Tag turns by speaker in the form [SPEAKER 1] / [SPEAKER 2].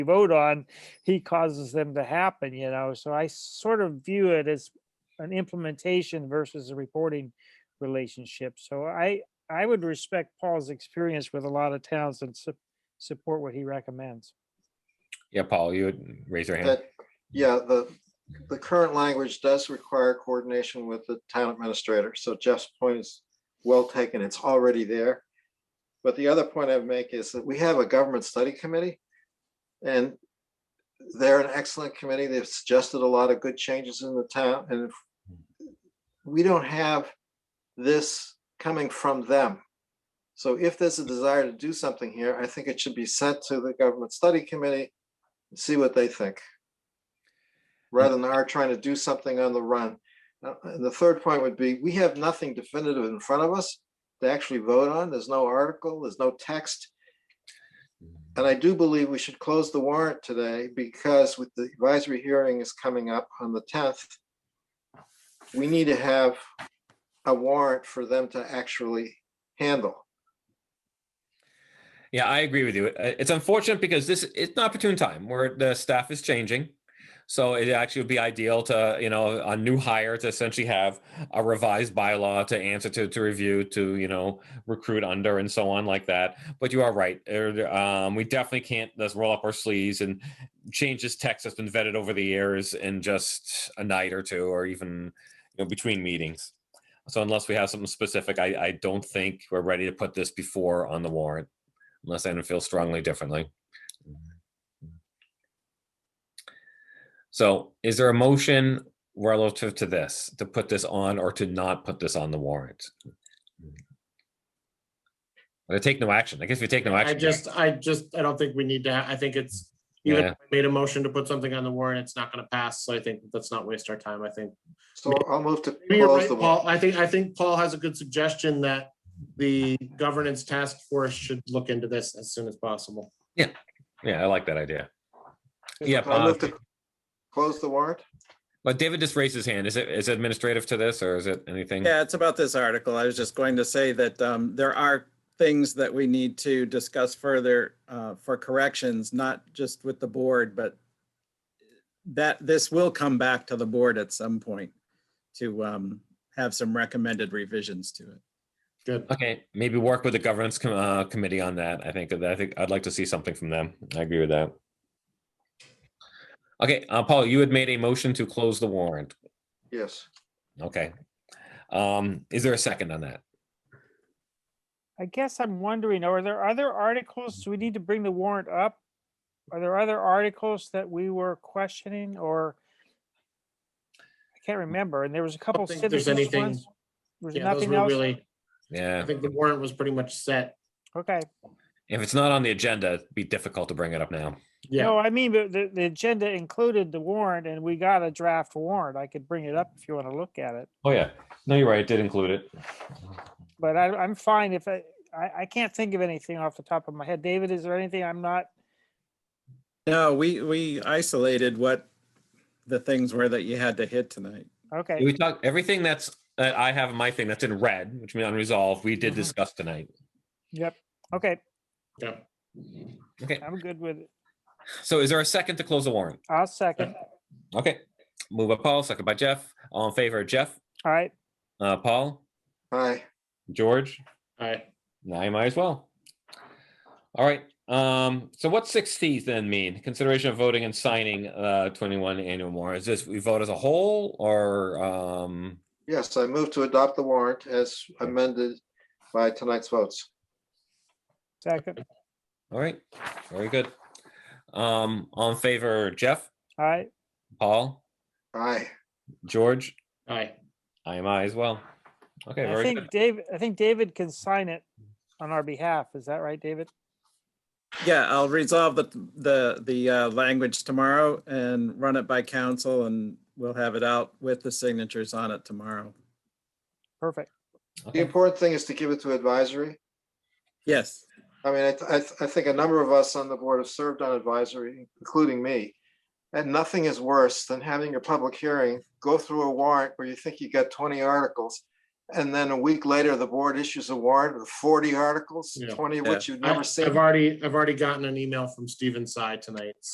[SPEAKER 1] vote on, he causes them to happen, you know, so I sort of view it as an implementation versus a reporting relationship. So I, I would respect Paul's experience with a lot of towns and su- support what he recommends.
[SPEAKER 2] Yeah, Paul, you would raise your hand.
[SPEAKER 3] That, yeah, the, the current language does require coordination with the town administrator, so Jeff's point is well taken, it's already there. But the other point I'd make is that we have a government study committee, and they're an excellent committee, they've suggested a lot of good changes in the town, and if we don't have this coming from them. So if there's a desire to do something here, I think it should be sent to the government study committee, and see what they think rather than our trying to do something on the run. Uh, And the third point would be, we have nothing definitive in front of us to actually vote on. There's no article, there's no text.
[SPEAKER 2] Mm-hmm.
[SPEAKER 3] And I do believe we should close the warrant today because with the advisory hearing is coming up on the tenth. We need to have a warrant for them to actually handle.
[SPEAKER 2] Yeah, I agree with you. Uh, It's unfortunate because this, it's an opportune time where the staff is changing. So it actually would be ideal to, you know, a new hire to essentially have a revised bylaw to answer to, to review, to, you know, recruit under and so on like that. But you are right. Er, Um, we definitely can't just roll up our sleeves and change this text that's been vetted over the years in just a night or two, or even, you know, between meetings. So unless we have something specific, I, I don't think we're ready to put this before on the warrant unless I feel strongly differently. So is there a motion relative to this, to put this on or to not put this on the warrant? But I take no action. I guess we take no
[SPEAKER 4] I
[SPEAKER 2] action.
[SPEAKER 4] just, I just, I don't think we need to, ha- I think it's, even
[SPEAKER 2] Yeah.
[SPEAKER 4] if we made a motion to put something on the warrant, it's not gonna pass, so I think let's not waste our time, I think.
[SPEAKER 3] So I'll move to
[SPEAKER 4] Maybe you're
[SPEAKER 3] close
[SPEAKER 4] right,
[SPEAKER 3] the
[SPEAKER 4] Paul,
[SPEAKER 3] warrant.
[SPEAKER 4] I think, I think Paul has a good suggestion that the governance task force should look into this as soon as possible.
[SPEAKER 2] Yeah, I like that idea. Yeah,
[SPEAKER 3] I'll move
[SPEAKER 2] Bob.
[SPEAKER 3] to Close the warrant?
[SPEAKER 2] But David just raised his hand. Is it, is it administrative to this or is it anything?
[SPEAKER 5] Yeah, it's about this article. I was just going to say that um, there are things that we need to discuss further uh, for corrections, not just with the board, but that this will come back to the board at some point to um, have some recommended revisions to it.
[SPEAKER 4] Good.
[SPEAKER 2] Okay, maybe work with the governance com- uh, committee on that. I think that I think I'd like to see something from them. I agree with that. Okay, uh, Paul, you had made a motion to close the warrant.
[SPEAKER 3] Yes.
[SPEAKER 2] Okay. Um, is there a second on that?
[SPEAKER 1] I guess I'm wondering, are there other articles? Do we need to bring the warrant up? Are there other articles that we were questioning or? I can't remember, and there was a couple.
[SPEAKER 4] think there's
[SPEAKER 1] citizens
[SPEAKER 4] anything-
[SPEAKER 1] ones. There's
[SPEAKER 4] Yeah, those
[SPEAKER 1] nothing
[SPEAKER 4] were
[SPEAKER 1] else?
[SPEAKER 4] really, I
[SPEAKER 2] Yeah,
[SPEAKER 4] think the warrant was pretty much set,
[SPEAKER 1] Okay.
[SPEAKER 2] if it's not on the agenda, it'd be difficult to bring it up now.
[SPEAKER 4] yeah,
[SPEAKER 1] No, I mean, the, the, the agenda included the warrant and we got a draft warrant. I could bring it up if you want to look at it.
[SPEAKER 2] Oh, yeah. No, you're right. It did include it.
[SPEAKER 1] But I, I'm fine if I, I, I can't think of anything off the top of my head. David, is there anything I'm not?
[SPEAKER 5] No, we, we isolated what the things were that you had to hit tonight.
[SPEAKER 1] Okay,
[SPEAKER 2] We talked, everything that's, that I have in my thing that's in red, which means unresolved, we did
[SPEAKER 1] Mhm.
[SPEAKER 2] discuss tonight.
[SPEAKER 1] okay,
[SPEAKER 4] yeah.
[SPEAKER 2] Okay,
[SPEAKER 1] I'm good with it.
[SPEAKER 2] so is there a second to close the warrant?
[SPEAKER 1] I'll second.
[SPEAKER 2] Okay, move by Paul, second by Jeff. All in favor of Jeff,
[SPEAKER 1] All right,
[SPEAKER 2] uh, Paul,
[SPEAKER 3] Aye.
[SPEAKER 2] George,
[SPEAKER 4] All right,
[SPEAKER 2] and I might as well. All right, um, so what's six Cs then mean? Consideration of voting and signing, uh, twenty-one annual warrant. Is this, we vote as a whole or, um,
[SPEAKER 3] Yes, I move to adopt the warrant as amended by tonight's votes.
[SPEAKER 1] second.
[SPEAKER 2] all right, very good. Um, all in favor, Jeff,
[SPEAKER 1] All right,
[SPEAKER 2] Paul,
[SPEAKER 3] Aye.
[SPEAKER 2] George,
[SPEAKER 4] all right,
[SPEAKER 2] I am I as well. Okay,
[SPEAKER 1] I
[SPEAKER 2] very good.
[SPEAKER 1] think David, I think David can sign it on our behalf. Is that right, David?
[SPEAKER 5] Yeah, I'll resolve the, the, the uh, language tomorrow and run it by council and we'll have it out with the signatures on it tomorrow.
[SPEAKER 1] Perfect.
[SPEAKER 3] The
[SPEAKER 2] Okay.
[SPEAKER 3] important thing is to give it to advisory.
[SPEAKER 5] Yes.
[SPEAKER 3] I mean, I, th- I, th- I think a number of us on the board have served on advisory, including me. And nothing is worse than having a public hearing, go through a warrant where you think you got twenty articles. And then a week later, the board issues a warrant with forty articles,
[SPEAKER 4] Yeah.
[SPEAKER 3] twenty of which you've
[SPEAKER 4] I-
[SPEAKER 3] never seen.
[SPEAKER 4] I've already, I've already gotten an email from Steven's side tonight,